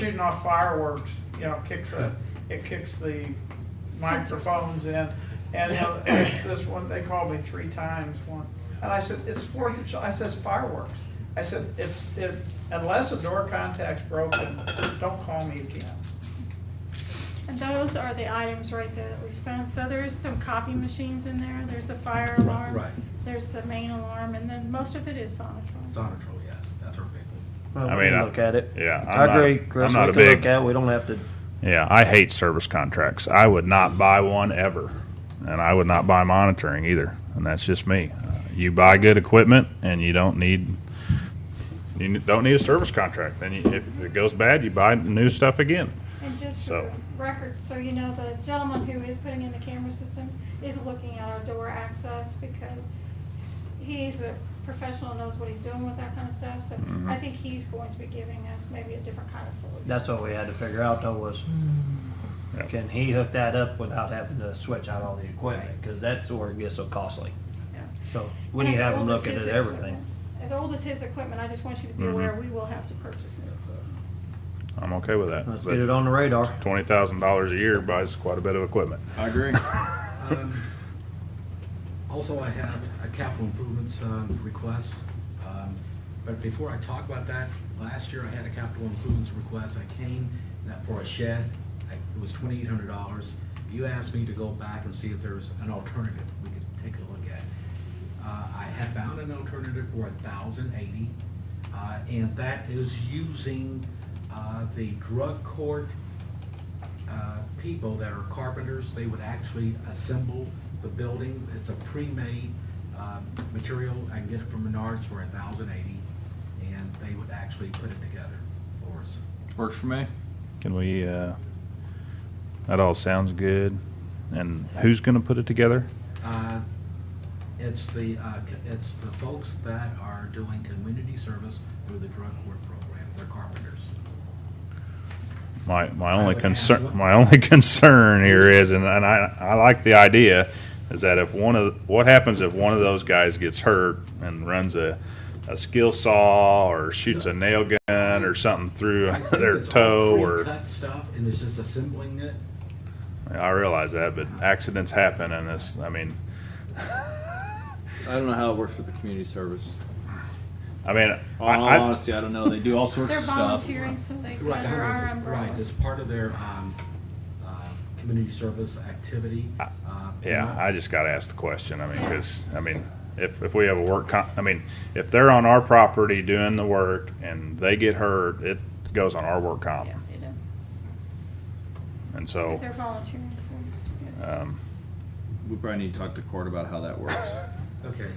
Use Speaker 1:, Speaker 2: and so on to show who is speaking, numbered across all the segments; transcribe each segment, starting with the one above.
Speaker 1: shooting off fireworks, you know, kicks the, it kicks the microphones in. And you know, this one, they called me three times one, and I said, it's Fourth of July, I says fireworks. I said, if, if, unless a door contact's broken, don't call me again.
Speaker 2: And those are the items right that we spent. So there's some copy machines in there, there's a fire alarm.
Speaker 3: right.
Speaker 2: There's the main alarm, and then most of it is Sonatrach.
Speaker 3: Sonatrol, yes, that's our big one.
Speaker 4: Well,
Speaker 5: I
Speaker 4: we
Speaker 5: mean,
Speaker 4: can
Speaker 5: I-
Speaker 4: look at it.
Speaker 5: yeah,
Speaker 4: I
Speaker 5: I'm not-
Speaker 4: agree, Chris.
Speaker 5: I'm not
Speaker 4: we
Speaker 5: a
Speaker 4: can
Speaker 5: big-
Speaker 4: look at. it. We don't have to.
Speaker 5: Yeah, I hate service contracts. I would not buy one ever, and I would not buy monitoring either. And that's just me. Uh, you buy good equipment, and you don't need you n- don't need a service contract. Then you, if it goes bad, you buy new stuff again.
Speaker 2: And just for
Speaker 5: So-
Speaker 2: record, so you know, the gentleman who is putting in the camera system is looking at our door access because he's a professional, knows what he's doing with that kind of stuff. So I think he's going to be giving us maybe a different kind of solution.
Speaker 4: Mm-hmm. That's what we had to figure out though was
Speaker 5: Yeah.
Speaker 4: can he hook that up without having to switch out all the equipment? Because that's where it gets so costly.
Speaker 2: Yeah.
Speaker 4: So we
Speaker 2: And
Speaker 4: need to
Speaker 2: as
Speaker 4: have him
Speaker 2: old
Speaker 4: look
Speaker 2: as
Speaker 4: at
Speaker 2: his
Speaker 4: it, everything. Mm-hmm.
Speaker 2: equipment- As old as his equipment, I just want you to be
Speaker 5: Mhm.
Speaker 2: aware, we will have to purchase new equipment.
Speaker 5: I'm okay with that.
Speaker 4: Let's get it on the radar.
Speaker 5: Twenty thousand dollars a year buys quite a bit of equipment.
Speaker 6: I agree.
Speaker 3: Um, Also, I have a capital improvements um, request, Um, but before I talk about that, last year I had a capital improvements request, I came that for a shed, I- it was twenty-eight hundred dollars. You asked me to go back and see if there's an alternative we could take a look at. Uh, I have found an alternative for a thousand eighty, Uh, and that is using uh, the drug court uh, people that are carpenters, they would actually assemble the building. It's a pre-made um, material. I can get it from Menards for a thousand eighty, and they would actually put it together for us.
Speaker 6: Works for me.
Speaker 5: Can we? Uh, that all sounds good. And who's going to put it together?
Speaker 3: Uh,
Speaker 6: It's the, uh, c- it's the folks that are doing community service through the drug court program. They're carpenters.
Speaker 5: My, my
Speaker 3: I
Speaker 5: only
Speaker 3: would ask
Speaker 5: concern,
Speaker 3: what-
Speaker 5: my only concern here is, and, and I, I like the idea, is that if one of, what happens if one of those guys gets hurt and runs a, a skill saw or shoots a nail gun or something through
Speaker 3: I think
Speaker 5: their
Speaker 3: it's all
Speaker 5: toe or,
Speaker 3: pre-cut stuff, and it's just assembling it.
Speaker 5: I realize that, but accidents happen and this, I mean,
Speaker 6: I don't know how it works with the community service.
Speaker 5: I mean, I,
Speaker 6: In all
Speaker 5: I,
Speaker 6: honesty, Oh, I don't know. They do all sorts
Speaker 2: They're
Speaker 6: of stuff.
Speaker 2: volunteering, so they,
Speaker 3: Right,
Speaker 2: under our
Speaker 3: hundred-
Speaker 2: umbrella.
Speaker 3: Right, it's part of their um, uh, community service activity. Uh,
Speaker 5: yeah,
Speaker 3: and
Speaker 5: I just gotta ask the question. I mean, cause, I mean, if, if we have a work con, I mean, if they're on our property doing the work and they get hurt, it goes on our work comp.
Speaker 2: Yeah, they do.
Speaker 5: And so.
Speaker 2: If they're volunteering for us.
Speaker 5: Um,
Speaker 6: We probably need to talk to court about how that works.
Speaker 3: Okay.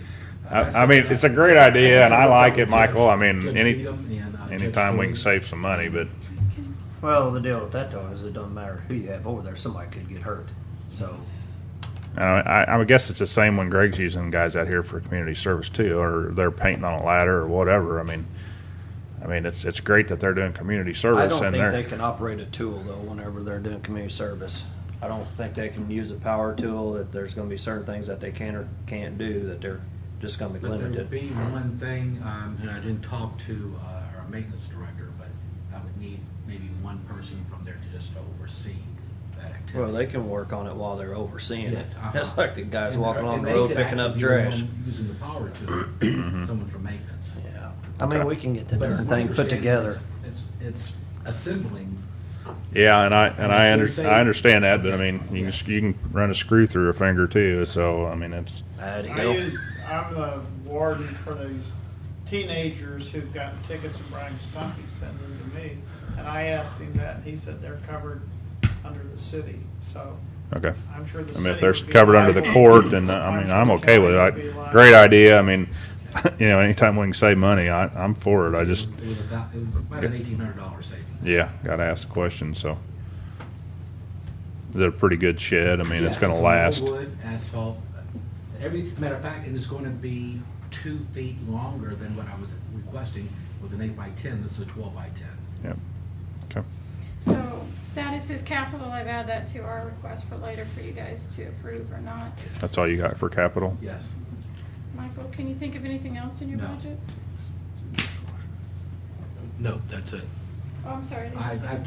Speaker 5: I, I mean, it's a great idea, and I like it, Michael. I mean,
Speaker 3: Judge
Speaker 5: any
Speaker 3: Needham and, uh, Judge
Speaker 5: anytime we can
Speaker 3: Stewart.
Speaker 5: save some money, but
Speaker 4: Well, the deal with that though is it doesn't matter who you have over there, somebody could get hurt. So
Speaker 5: uh, I, I guess it's the same when Greg's using guys out here for community service too, or they're painting on a ladder or whatever. I mean, I mean, it's it's great that they're doing community
Speaker 4: I
Speaker 5: service
Speaker 4: don't
Speaker 5: and
Speaker 4: think
Speaker 5: they're
Speaker 4: they can operate a tool though whenever they're doing community service. I don't think they can use a power tool, that there's gonna be certain things that they can or can't do that they're just gonna be
Speaker 3: But there would
Speaker 4: limited.
Speaker 3: be one thing, um, and I didn't talk to, uh, our maintenance director, but I would need maybe one person from there to just oversee that activity.
Speaker 4: Well, they can work on it while they're overseeing it.
Speaker 3: Yes, uh-huh.
Speaker 4: That's like the guys
Speaker 3: And-
Speaker 4: walking on
Speaker 3: and
Speaker 4: the
Speaker 3: they
Speaker 4: road
Speaker 3: could
Speaker 4: picking up
Speaker 3: actually be the
Speaker 4: trash.
Speaker 3: one Using the power tool, someone from maintenance.
Speaker 4: Yeah, I mean,
Speaker 5: Okay.
Speaker 4: we can get the
Speaker 3: But it's
Speaker 4: darn
Speaker 3: my
Speaker 4: thing put
Speaker 3: understanding
Speaker 4: together.
Speaker 3: It's, it's assembling,
Speaker 5: yeah, and I and I
Speaker 3: Actually
Speaker 5: under,
Speaker 3: save-
Speaker 5: I understand that, but I mean, you
Speaker 3: Yes.
Speaker 5: can you can run a screw through a finger too, so I mean, it's
Speaker 4: I'd
Speaker 1: I
Speaker 4: help.
Speaker 1: use, I'm the warden for these teenagers who've gotten tickets and Brian Stumpy sent them to me. And I asked him that, and he said they're covered under the city, so
Speaker 5: okay.
Speaker 1: I'm sure the
Speaker 5: I
Speaker 1: city.
Speaker 5: mean, if they're
Speaker 1: would be
Speaker 5: covered under the
Speaker 1: liable.
Speaker 5: court, then, uh, I mean, I'm
Speaker 1: sure the
Speaker 5: okay with it.
Speaker 1: county would be
Speaker 5: I-
Speaker 1: liable.
Speaker 5: Great idea. I mean, you know, anytime we can save money, I, I'm for it. I
Speaker 3: it was
Speaker 5: just,
Speaker 3: it was about, it was about an eighteen hundred dollar savings.
Speaker 5: yeah, gotta ask the question, so. They're a pretty good shed. I mean, it's
Speaker 3: Yes,
Speaker 5: gonna
Speaker 3: all
Speaker 5: last.
Speaker 3: Wood, asphalt, every, matter of fact, and it's gonna be two feet longer than what I was requesting, was an eight by ten, this is a twelve by ten.
Speaker 5: Yep. Okay.
Speaker 2: So that is his capital. I've added that to our request for later for you guys to approve or not.
Speaker 5: That's all you got for capital?
Speaker 3: Yes.
Speaker 2: Michael, can you think of anything else in your
Speaker 3: No.
Speaker 2: budget?
Speaker 3: No, that's it.
Speaker 2: Oh, I'm sorry. I didn't
Speaker 3: I,
Speaker 2: see.
Speaker 3: I